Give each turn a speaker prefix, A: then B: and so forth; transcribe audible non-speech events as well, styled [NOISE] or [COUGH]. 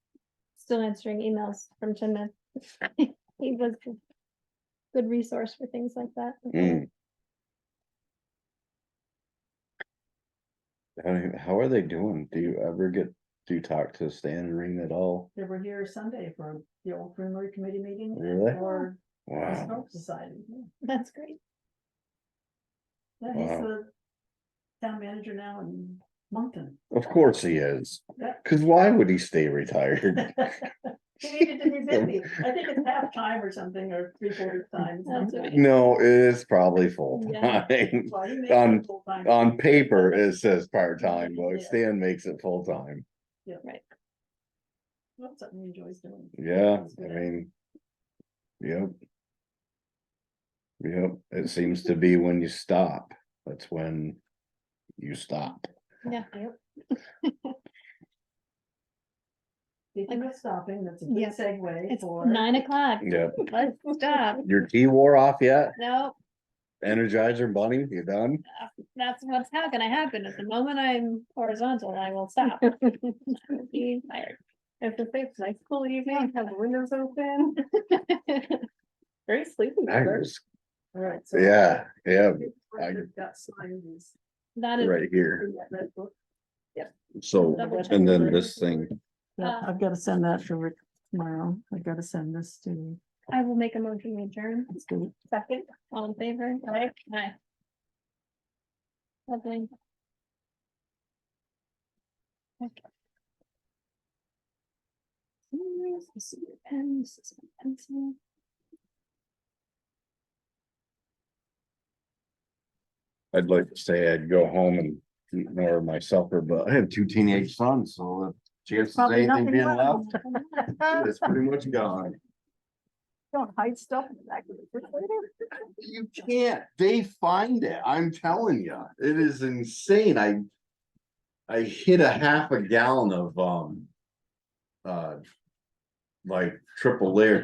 A: still answering emails from Tim. Man. [LAUGHS] He was a good resource for things like that.
B: Mm. How, do you- how are they doing? Do you ever get, do you talk to Stan and Reen at all?
C: They were here Sunday for the old primary committee meeting.
B: Really?
C: Or the
B: Wow,
C: Historic Society. yeah.
A: That's great.
C: Yeah, he's
B: Wow.
C: the town manager now in Moncton. [LAUGHS]
B: of course he is.
C: Yeah.
B: Cause why would he stay retired?
C: [LAUGHS] He needed
B: [LAUGHS]
C: to be busy. I think it's half time or something, or three quarters time.
A: That's right.
B: No, it is probably full
A: Yeah.
B: time. [LAUGHS]
C: Well, he made
B: On-
C: it full-time.
B: On paper, it says part-time, but
C: Yeah.
B: Stan makes it full-time.
C: Well, it's Something he enjoys doing.
B: Yeah,
C: That's
B: I
C: good.
B: mean. Yep. Yep, it seems to be when you stop, that's when you stop.
A: Yeah.
C: Speaking of stopping, that's a good
A: Yeah.
C: segue
A: It's
C: for.
A: nine o'clock.
B: Yep,
A: Let's stop.
B: your tea wore off yet?
A: No,
B: Energizer bunny, you done?
A: that's what's how gonna happen. At the moment I'm horizontal, I will
B: [LAUGHS]
A: stop. I'm being tired.
D: It's a safe, nice cool evening, have the windows
A: [LAUGHS]
D: open, very sleepy.
B: I
D: weather.
B: was,
C: All right. so-
B: yeah, yeah, I-
C: We've Got signed these-
A: That is,
B: right here,
C: in that red book.
B: so,
A: Double
B: and
A: check. Uh,
B: then this thing,
A: Yeah, I've
C: gotta send that to Rick tomorrow. I gotta send this to.
A: I will make a motion to adjourn. Second, all in favor? Aye. Aye. Lovely. Okay. Yes, I see your pen, this is my pencil.
B: I'd like to say I'd go home and. eat more of my supper, but I have two teenage sons, so the chances of
D: Probably
B: anything
D: nothing
B: being
D: wrong. Uh,
B: left, is pretty much gone.
D: [LAUGHS] Don't hide stuff in the back of the refrigerator.
B: You can't, they find it, I'm telling you, it is insane, I. I hit a half a gallon of, um. Uh. Like triple layer